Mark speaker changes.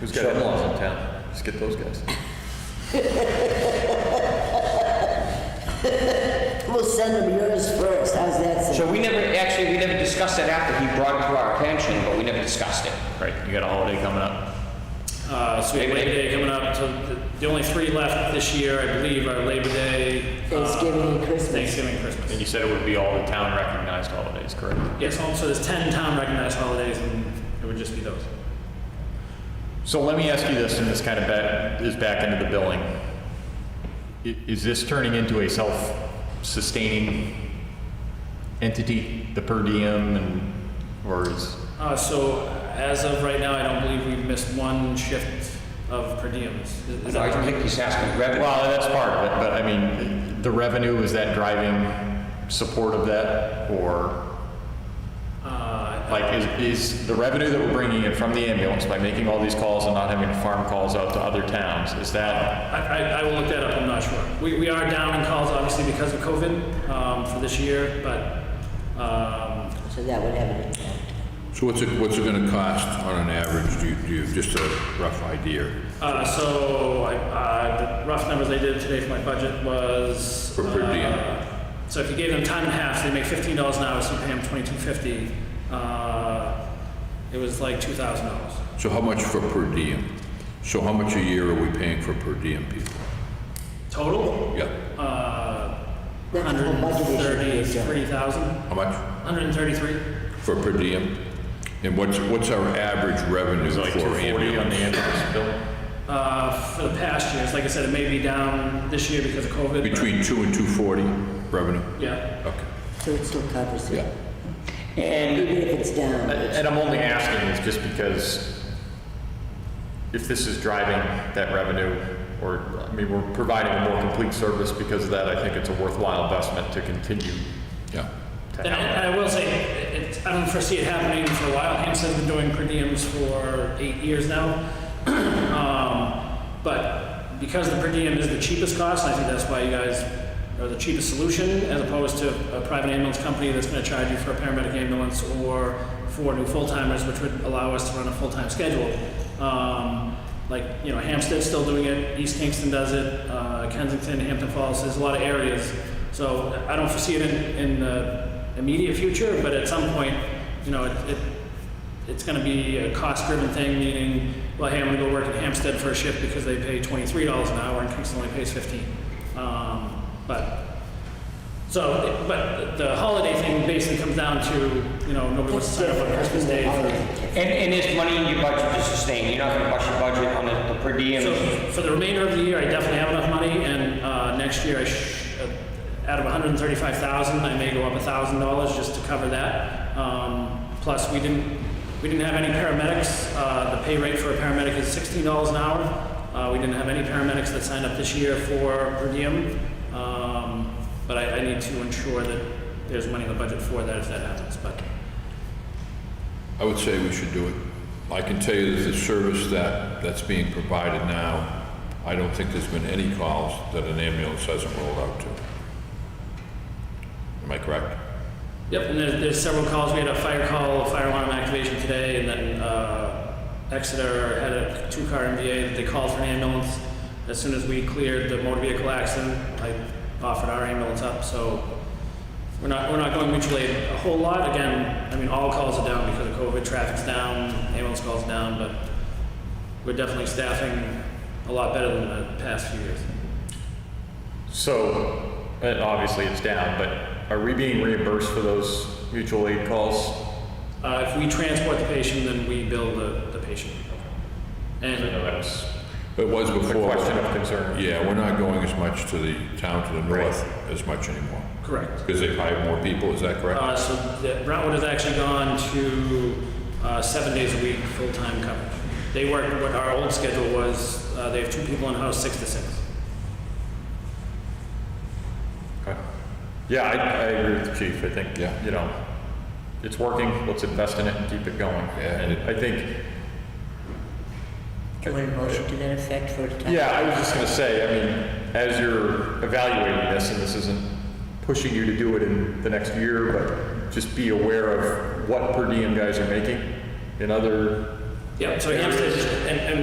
Speaker 1: Who's got in-laws in town? Just get those guys.
Speaker 2: We'll send them yours first, how's that sound?
Speaker 3: So we never, actually, we never discussed that after he brought it to our attention, but we never discussed it.
Speaker 4: Right, you got a holiday coming up.
Speaker 5: Uh, so we have Labor Day coming up, so the, the only three left this year, I believe, are Labor Day. uh,
Speaker 2: Thanksgiving and Christmas.
Speaker 5: Thanksgiving, and
Speaker 4: And you
Speaker 5: Christmas.
Speaker 4: said it would be all the town recognized holidays, correct?
Speaker 5: Yes, so- so there's ten town recognized holidays, and it would just be those.
Speaker 4: So let me ask you this, and this kind of back, is back into the billing. I- Is this turning into a self-sustaining entity, the per diem, and, or is,
Speaker 5: Uh, so as of right now, I don't believe we've missed one shift of per diems. Is- is
Speaker 3: No,
Speaker 5: that
Speaker 3: I
Speaker 5: correct?
Speaker 3: think he's asking revenue.
Speaker 4: well, that's part of it, but I mean, the revenue, is that driving support of that, or?
Speaker 5: Uh,
Speaker 4: Like, is, is the revenue that we're bringing in from the ambulance by making all these calls and not having to farm calls out to other towns, is that,
Speaker 5: I, I, I will look that up, I'm not sure. We, we are down in calls, obviously, because of COVID, um, for this year, but, um,
Speaker 2: So that would have an impact.
Speaker 6: So what's it, what's it gonna cost on an average, do you, do you, just a rough idea
Speaker 5: Uh, so, I, uh, the rough numbers I did today for my budget was.
Speaker 6: For per
Speaker 5: uh,
Speaker 6: diem.
Speaker 5: So if you gave them time and a half, they make fifteen dollars an hour, so you pay them twenty-two fifty, uh, it was like two thousand dollars.
Speaker 6: So how much for per diem? So how much a year are we paying for per diem people?
Speaker 5: Total,
Speaker 6: Yeah,
Speaker 5: uh,
Speaker 2: That's the whole budget issue.
Speaker 5: thirty-three thousand,
Speaker 6: how much
Speaker 5: hundred and thirty-three.
Speaker 6: for per diem? And what's, what's our average revenue
Speaker 4: is it
Speaker 6: for
Speaker 4: like 240 on the
Speaker 6: ambulance?
Speaker 4: ambulance bill?
Speaker 5: Uh, for the past years, like I said, it may be down this year because of COVID. but-
Speaker 6: Between two and two forty revenue?
Speaker 5: Yeah.
Speaker 6: Okay,
Speaker 2: So it still covers
Speaker 6: yeah.
Speaker 2: it,
Speaker 4: And,
Speaker 2: even if it's down.
Speaker 4: and I'm only asking is just because if this is driving that revenue, or, I mean, we're providing a more complete service because of that, I think it's a worthwhile investment to continue
Speaker 6: Yeah.
Speaker 4: to
Speaker 5: And I,
Speaker 4: have.
Speaker 5: I will say, it, it- I don't foresee it happening for a while. Hampstead's been doing per diems for eight years now. um, but because the per diem is the cheapest cost, I think that's why you guys are the cheapest solution as opposed to a private ambulance company that's going to charge you for a paramedic ambulance or four new full timers, which would allow us to run a full time schedule. Um, like, you know, Hampstead's still doing it, East Kingston does it, uh, Kensington, Hampton Falls, there's a lot of areas so I don't foresee it in, in the immediate future, but at some point, you know, it, it, it's gonna be a cost-driven thing, meaning, well, hey, I'm gonna go work at Hampstead for a shift because they pay twenty-three dollars an hour and Kingston only pays fifteen. Um, but, so, but the holiday thing basically comes down to, you know, nobody wants to sign up on Christmas Day for
Speaker 3: And, and there's money in your budget to sustain, you're not gonna bust your budget on the the per diem.
Speaker 5: So for the remainder of the year, I definitely have enough money, and uh, next year, I sh- uh, out of 135,000, I may go up $1,000 just to cover that. Um, Plus, we didn't, we didn't have any paramedics. Uh, The pay rate for a paramedic is $16 an hour. Uh, We didn't have any paramedics that signed up this year for per diem. Um, But I, I need to ensure that there's money in the budget for that if that happens, but.
Speaker 6: I would say we should do it. I can tell you that the service that, that's being provided now, I don't think there's been any calls that an ambulance hasn't rolled out to. Am I correct?
Speaker 5: Yep, and there's, there's several calls. We had a fire call, a fire alarm activation today, and then uh, Exeter had a two-car MVA that they called for an ambulance. As soon as we cleared the motor vehicle accident, I offered our ambulance up. So we're not we're not going mutual aid a whole lot. Again, I mean all calls are down because of COVID. Traffic's down, ambulance calls down, but we're definitely staffing a lot better than the past few years.
Speaker 4: So, and obviously it's down, but are we being reimbursed for those mutual aid calls?
Speaker 5: Uh, if we transport the patient, then we bill the, the patient.
Speaker 4: I know
Speaker 5: And
Speaker 4: that was
Speaker 6: It was
Speaker 4: a
Speaker 6: before.
Speaker 4: question of concern.
Speaker 6: Yeah, we're not going as much to the town to the
Speaker 4: Right.
Speaker 6: north as much anymore,
Speaker 5: correct.
Speaker 6: because they hire more people, is that correct?
Speaker 5: Uh, so the- Brentwood has actually gone to uh, seven days a week, full-time coverage. They work, what our old schedule was, uh, they have two people in-house, six to six.
Speaker 4: Okay. Yeah, I, I agree with the chief. I think,
Speaker 6: Yeah.
Speaker 4: you know, it's working. Let's invest in it and keep it going.
Speaker 6: Yeah.
Speaker 4: And I think,
Speaker 2: Do you want a motion to that effect for a time?
Speaker 4: yeah, I was just going to say, I mean, as you're evaluating this, and this isn't pushing you to do it in the next year, but just be aware of what per diem guys are making in other
Speaker 5: Yeah, so Hampstead, and, and